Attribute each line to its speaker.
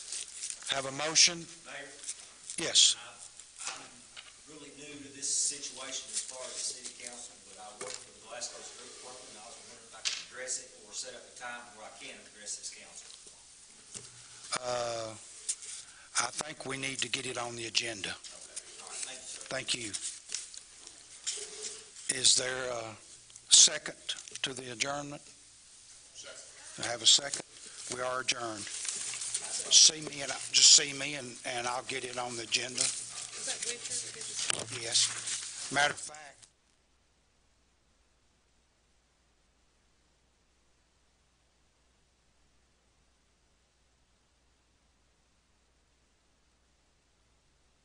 Speaker 1: Have a motion?
Speaker 2: Mayor,
Speaker 1: Yes.
Speaker 2: I'm really new to this situation as far as the city council, but I work for the Glasgow Street Department, and I was wondering if I could address it or set up a time where I can address this council.
Speaker 1: Uh, I think we need to get it on the agenda.
Speaker 2: All right, thank you, sir.
Speaker 1: Thank you. Is there a second to the adjournment? I have a second. We are adjourned. See me and, just see me and, and I'll get it on the agenda.
Speaker 3: Is that Richard?
Speaker 1: Yes. Matter of fact,